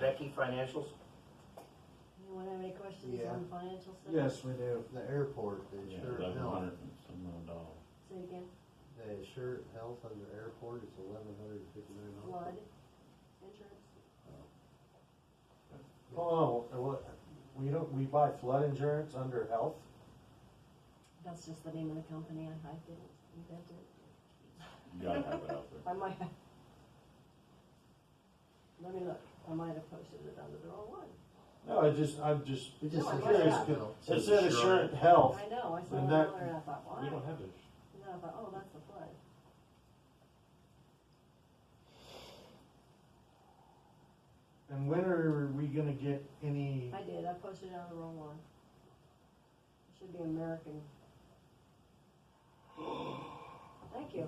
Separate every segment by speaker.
Speaker 1: Becky, financials?
Speaker 2: Anyone have any questions
Speaker 3: Yeah.
Speaker 2: on financial stuff?
Speaker 3: Yes, we do. The airport, the
Speaker 4: Yeah,
Speaker 3: insured
Speaker 4: eleven
Speaker 3: health,
Speaker 4: hundred and some odd dollars.
Speaker 2: Say it again,
Speaker 3: the insured health under airport is eleven hundred and fifty-nine
Speaker 2: flood
Speaker 3: dollars.
Speaker 2: insurance?
Speaker 5: Oh, what, we don't, we buy flood insurance under health?
Speaker 2: That's just the name of the company. I I didn't invent it.
Speaker 4: You gotta have it out there.
Speaker 2: I might have. Let me look. I might have posted it under the wrong one.
Speaker 5: No, I just, I'm just,
Speaker 3: We just
Speaker 2: No, I
Speaker 3: insured
Speaker 2: guess
Speaker 5: not.
Speaker 3: health.
Speaker 5: it said insurance health.
Speaker 2: I know, I saw
Speaker 5: And
Speaker 2: it
Speaker 5: Oh. that-
Speaker 2: earlier and I thought, why?
Speaker 4: We
Speaker 2: And
Speaker 4: don't have this.
Speaker 2: then I thought, oh, that's the flood.
Speaker 5: And when are we gonna get any,
Speaker 2: I did, I posted it on the wrong one. It should be American. Thank you.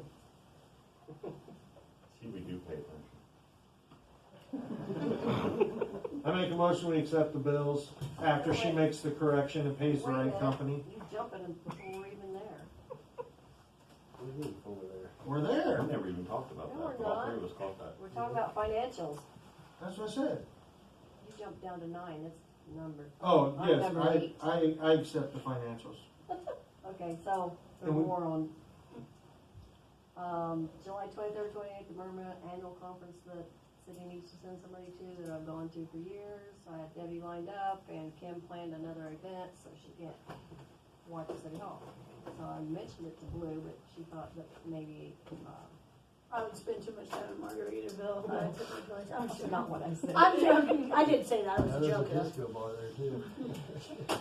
Speaker 4: See, we do pay attention.
Speaker 5: I make a motion, we accept the bills after she makes the correction and pays the
Speaker 2: Wait a
Speaker 5: right
Speaker 2: minute.
Speaker 5: company.
Speaker 2: You jumping in before we're even there.
Speaker 3: We need over there.
Speaker 5: We're there,
Speaker 4: We never even talked about
Speaker 2: No,
Speaker 4: that.
Speaker 2: we're
Speaker 4: All three
Speaker 2: not.
Speaker 4: of us caught that.
Speaker 2: We're talking about financials.
Speaker 5: that's what I said.
Speaker 2: You jumped down to nine, that's number.
Speaker 5: Oh,
Speaker 2: I'm
Speaker 5: yes,
Speaker 2: number
Speaker 5: I,
Speaker 2: eight.
Speaker 5: I, I accept the financials.
Speaker 2: Okay, so the
Speaker 5: And we-
Speaker 2: war on, um, July twenty-third, twenty-eighth, the Burma annual conference that city needs to send somebody to that I've gone to for years. I had Debbie lined up and Kim planned another event, so she can't watch City Hall. So I mentioned it to Blue, but she thought that maybe, uh,
Speaker 6: I would spend too much time in Margaritaville if I took my place. I'm
Speaker 2: that's
Speaker 6: just
Speaker 2: not what I said.
Speaker 6: I'm joking. I didn't say that. I
Speaker 3: Now,
Speaker 6: was
Speaker 3: there's a
Speaker 6: joking.
Speaker 3: disco bar there too.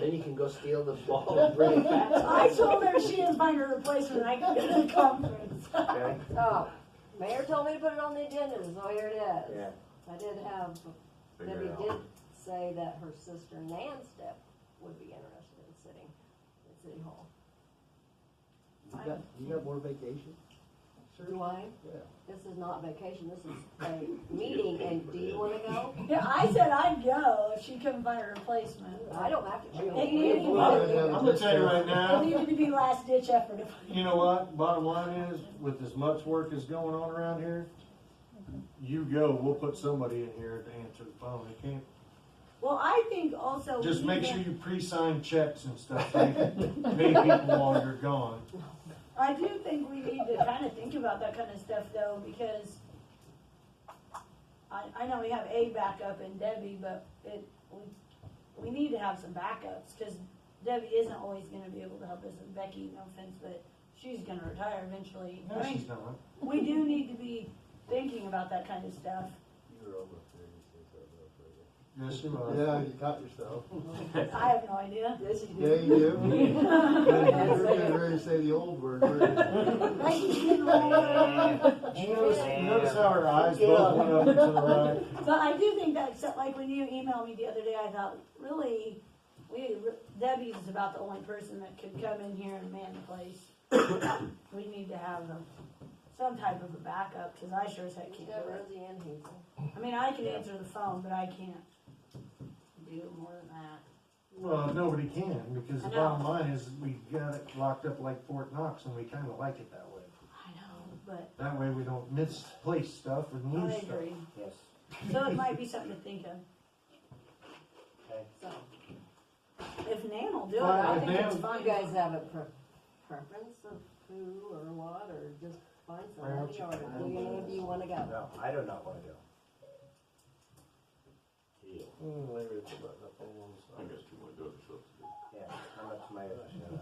Speaker 7: Then you can go steal the ball and bring it back.
Speaker 6: I told her she didn't find her replacement. I could go to the conference.
Speaker 7: Okay?
Speaker 2: Oh, mayor told me to put it on the agenda, so here it is.
Speaker 7: Yeah.
Speaker 2: I did have,
Speaker 4: Figure
Speaker 2: Debbie
Speaker 4: it out.
Speaker 2: did say that her sister Nan Step would be interested in sitting at City Hall.
Speaker 3: You got, you got more vacation?
Speaker 2: Do I?
Speaker 3: Yeah.
Speaker 2: This is not vacation, this is a meeting, and do you wanna go?
Speaker 6: Yeah, I said I'd go if she couldn't find a replacement.
Speaker 2: I don't have to. go.
Speaker 6: Hey, you need
Speaker 5: I'm gonna tell you right now.
Speaker 6: It needed to be last ditch effort. if I-
Speaker 5: You know what, bottom line is, with as much work as going on around here, you go, we'll put somebody in here to answer the phone, they can't,
Speaker 6: Well, I think also. we
Speaker 5: just
Speaker 6: need
Speaker 5: make
Speaker 6: to-
Speaker 5: sure you pre-sign checks and stuff, so you can pay people while you're gone.
Speaker 6: I do think we need to kind of think about that kind of stuff though, because I, I know we have a backup in Debbie, but it, we, we need to have some backups, cause Debbie isn't always gonna be able to help us, and Becky, no offense, but she's gonna retire eventually.
Speaker 5: No,
Speaker 6: I mean,
Speaker 5: she's not.
Speaker 6: We do need to be thinking about that kind of stuff.
Speaker 3: You were almost there, you said something else, right?
Speaker 5: Yes, she
Speaker 3: Yeah,
Speaker 5: was.
Speaker 3: you caught yourself.
Speaker 6: I have no idea.
Speaker 2: Yes, you
Speaker 3: Yeah,
Speaker 2: do.
Speaker 3: you do. You're getting ready to say the old word.
Speaker 7: Mm,
Speaker 3: weren't you?
Speaker 5: Did you notice, you notice how her eyes both went up and to the right?
Speaker 6: But I do think that, except like when you emailed me the other day, I thought, really, we, Debbie's is about the only person that could come in here and man the place. We need to have a- some type of a backup, cause I sure as heck
Speaker 2: You
Speaker 6: can't
Speaker 2: got
Speaker 6: do it.
Speaker 2: Rosie and Hazel.
Speaker 6: I mean, I can answer the phone, but I can't do more than that.
Speaker 5: Well, nobody can, because the
Speaker 6: I know.
Speaker 5: bottom line is, we got it locked up like Fort Knox, and we kinda like it that way.
Speaker 6: I know, but
Speaker 5: That way we don't misplace stuff and
Speaker 6: I
Speaker 5: lose stuff.
Speaker 6: agree.
Speaker 1: Yes.
Speaker 6: So it might be something to think of.
Speaker 2: So,
Speaker 6: If Nan will do it,
Speaker 5: Well,
Speaker 6: I
Speaker 5: if
Speaker 6: think it's
Speaker 5: Nan-
Speaker 6: fine.
Speaker 2: you guys have a pre- preference of who or what, or just find somebody, or do you know if you wanna go?
Speaker 1: No, I do not wanna go.
Speaker 3: Hmm, maybe it's about up on one side.
Speaker 4: I guess you wanna go to Phillips.
Speaker 1: Yeah, I'm up to my,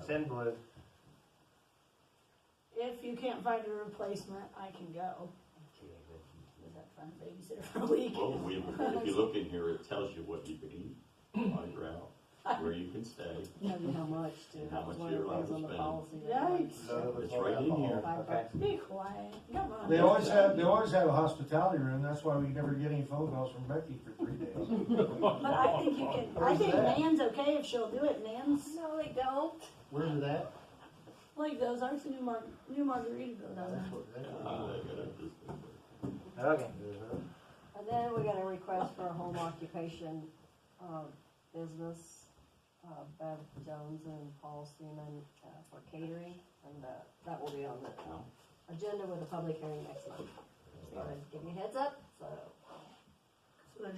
Speaker 1: send blue.
Speaker 6: If you can't find a replacement, I can go. Was that fun? Babysitter for a week.
Speaker 4: Well, Oh, we, if you look in here, it tells you what you can eat, while you're out, where you can stay.
Speaker 2: Tell you how much to,
Speaker 4: And how
Speaker 2: that's
Speaker 4: much
Speaker 2: one of
Speaker 4: you're
Speaker 2: the things on the
Speaker 4: allowed to
Speaker 2: policy.
Speaker 6: Yikes.
Speaker 4: It's right in here.
Speaker 2: Five
Speaker 1: Okay.
Speaker 2: bucks.
Speaker 6: Be quiet. Come on.
Speaker 5: They always have, they always have a hospitality room, that's why we never get any phone calls from Becky for three days.
Speaker 6: But I think you can, I think Nan's okay if she'll do it. Nan's,
Speaker 2: No, they don't.
Speaker 3: Where's it at?
Speaker 6: like those arts in New Mar- New Margaritaville does
Speaker 3: That's
Speaker 6: it.
Speaker 3: what, that's
Speaker 4: Ah,
Speaker 3: what.
Speaker 4: I got it. This-
Speaker 1: Okay.
Speaker 3: Uh-huh.
Speaker 2: And then we got a request for a home occupation, uh, business, uh, Bev Jones and Paul Seaman, uh, for catering, and, uh, that will be on the uh, agenda with a public hearing next month. So, give me a heads up, so